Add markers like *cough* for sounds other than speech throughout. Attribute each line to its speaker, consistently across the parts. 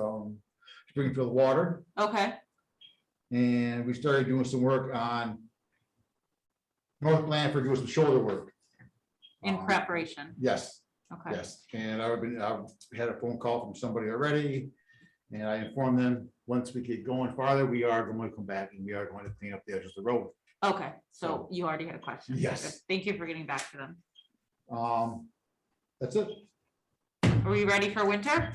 Speaker 1: um, Springfield Water.
Speaker 2: Okay,
Speaker 1: And we started doing some work on North Blanford, doing some shoulder work.
Speaker 2: in
Speaker 1: Um,
Speaker 2: preparation.
Speaker 1: Yes,
Speaker 2: Okay,
Speaker 1: Yes, and I've been, I've had a phone call from somebody already. And I informed them, once we get going farther, we are going to come back and we are going to clean up the edges of the road.
Speaker 2: okay. So
Speaker 1: So-
Speaker 2: you already had a question.
Speaker 1: Yes.
Speaker 2: Okay, Thank you for getting back to them.
Speaker 1: Um, that's it.
Speaker 2: Are we ready for winter?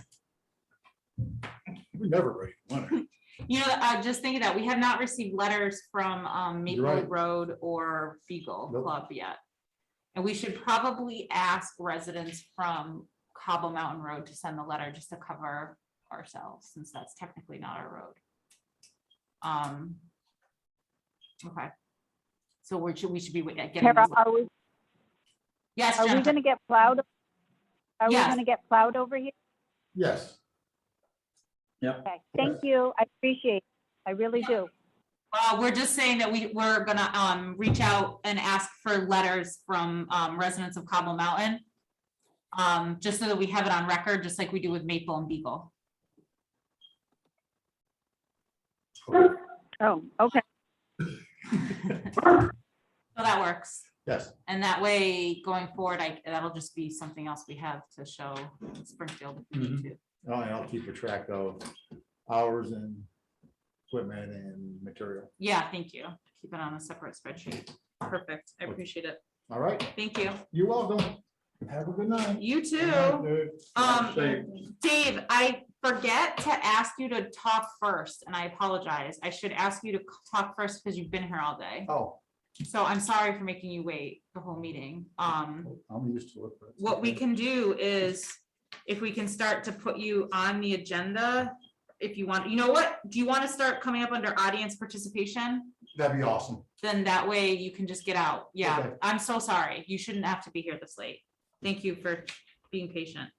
Speaker 1: We're never ready. for winter.
Speaker 2: *laughs* You know, uh, just thinking that we have not received letters from, um,
Speaker 1: You're
Speaker 2: Maple
Speaker 1: right.
Speaker 2: Road or Beagle
Speaker 1: Nope.
Speaker 2: Club yet. And we should probably ask residents from Cobble Mountain Road to send the letter just to cover ourselves, since that's technically not our road. Um. Okay. So we're, should- we should be wa- getting.
Speaker 3: Tara,
Speaker 2: those-
Speaker 3: are we,
Speaker 2: Yes,
Speaker 3: are we
Speaker 2: Jennifer.
Speaker 3: gonna get plowed? Are we
Speaker 2: Yes.
Speaker 3: gonna get plowed over here?
Speaker 1: Yes,
Speaker 3: Okay, thank you. I appreciate it. I really do.
Speaker 2: Uh, we're just saying that we, we're gonna, um, reach out and ask for letters from, um, residents of Cobble Mountain. Um, just so that we have it on record, just like we do with Maple and Beagle.
Speaker 3: Oh, okay.
Speaker 2: So that works.
Speaker 1: yes,
Speaker 2: And that way, going forward, I, that'll just be something else we have to show Springfield if we need to.
Speaker 1: Oh, and I'll keep a track of hours and equipment and material.
Speaker 2: Yeah, thank you. Keep it on a separate spreadsheet. Perfect. I appreciate it.
Speaker 1: All right,
Speaker 2: Thank you.
Speaker 1: you're welcome. Have a good night.
Speaker 2: You
Speaker 1: Good
Speaker 2: too.
Speaker 1: night, dude.
Speaker 2: Um,
Speaker 1: Safe.
Speaker 2: Dave, I forget to ask you to talk first, and I apologize. I should ask you to c- talk first because you've been here all day.
Speaker 1: Oh,
Speaker 2: So I'm sorry for making you wait the whole meeting. Um,
Speaker 1: I'm used to it. but it's
Speaker 2: what we
Speaker 1: okay.
Speaker 2: can do is, if we can start to put you on the agenda, if you want, you know what? Do you want to start coming up under audience participation?
Speaker 1: That'd be awesome.
Speaker 2: Then that way you can just get out. Yeah,
Speaker 1: Okay.
Speaker 2: I'm so sorry. You shouldn't have to be here this late. Thank you for being patient.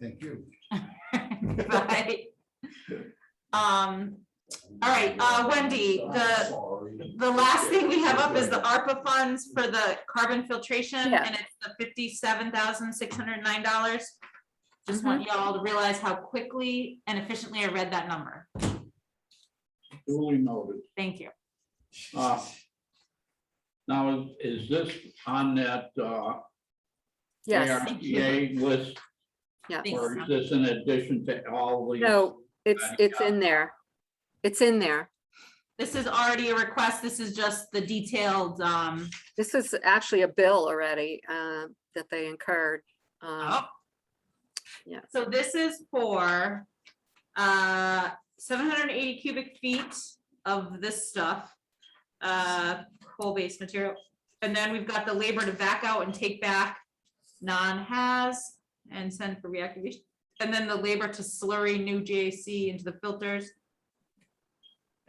Speaker 1: Thank
Speaker 2: *laughs*
Speaker 1: you.
Speaker 2: Bye. Um, All right, uh, Wendy, the- the last thing we have up is the ARPA funds for the carbon filtration,
Speaker 4: Yeah.
Speaker 2: and it's the fifty-seven thousand, six hundred and nine dollars. Just want y'all to realize how quickly and efficiently I read that number.
Speaker 5: Duly noted.
Speaker 2: Thank you.
Speaker 5: Uh, Now, is- is this on that uh,
Speaker 4: Yes,
Speaker 5: ARPA list,
Speaker 4: yeah.
Speaker 2: Thanks.
Speaker 5: or is this in addition to all the?
Speaker 4: No, it's, it's in there. It's in there.
Speaker 2: This is already a request. This is just the detailed, um,
Speaker 4: This is actually a bill already uh, that they incurred. um,
Speaker 2: oh.
Speaker 4: Yeah.
Speaker 2: So this is for, uh, seven hundred and eighty cubic feet of this stuff. Uh, coal-based material. And then we've got the labor to back out and take back non-has and send for reactivation. And then the labor to slurry new JAC into the filters.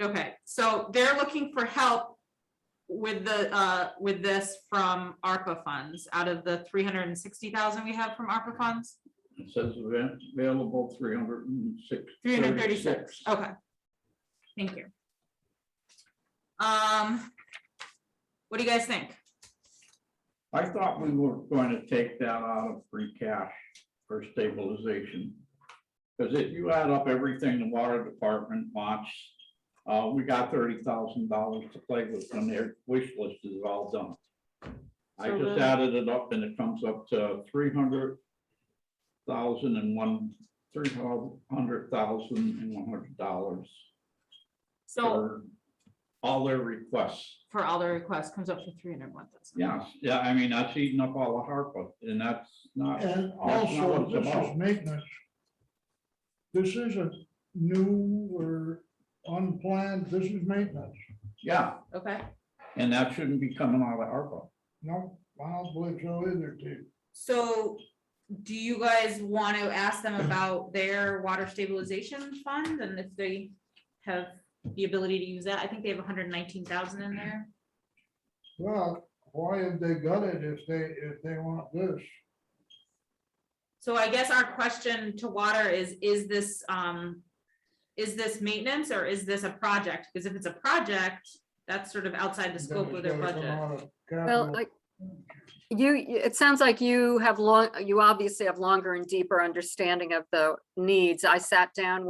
Speaker 2: Okay, so they're looking for help with the, uh, with this from ARPA funds, out of the three hundred and sixty thousand we have from ARPA funds,
Speaker 5: It says ava- available three hundred and six.
Speaker 2: three hundred and thirty-six, okay. Thank you. Um, what do you guys think?
Speaker 5: I thought we were going to take that out of free cash for stabilization. Because if you add up everything the water department wants, uh, we got thirty thousand dollars to play with when their wish list is all done. I
Speaker 2: So
Speaker 5: just
Speaker 2: the-
Speaker 5: added it up and it comes up to three hundred thousand and one, three hundred thousand and one hundred dollars
Speaker 2: So
Speaker 5: for all their requests.
Speaker 2: for all the requests comes up to three hundred and one thousand.
Speaker 5: Yes, yeah, I mean, that's eating up all the HARPA, and that's not,
Speaker 6: And
Speaker 5: That's not what
Speaker 6: also,
Speaker 5: Oh, it's
Speaker 6: this is
Speaker 5: about.
Speaker 6: maintenance. This isn't new or unplanned, this is maintenance.
Speaker 5: yeah,
Speaker 2: Okay,
Speaker 5: and that shouldn't be coming out of ARPA.
Speaker 6: No, I don't believe so either, Steve.
Speaker 2: so do you guys want to ask them about their water stabilization fund and if they have the ability to use that? I think they have hundred and nineteen thousand in there.
Speaker 6: Well, why have they got it if they, if they want this?
Speaker 2: So I guess our question to water is, is this, um, is this maintenance or is this a project? Because if it's a project, that's sort of outside the scope of their
Speaker 6: Then it's gotta
Speaker 2: budget.
Speaker 6: come out of
Speaker 4: Well,
Speaker 1: Oh.
Speaker 6: capital.
Speaker 4: like, you, you- it sounds like you have long, you obviously have longer and deeper understanding of the needs. I sat down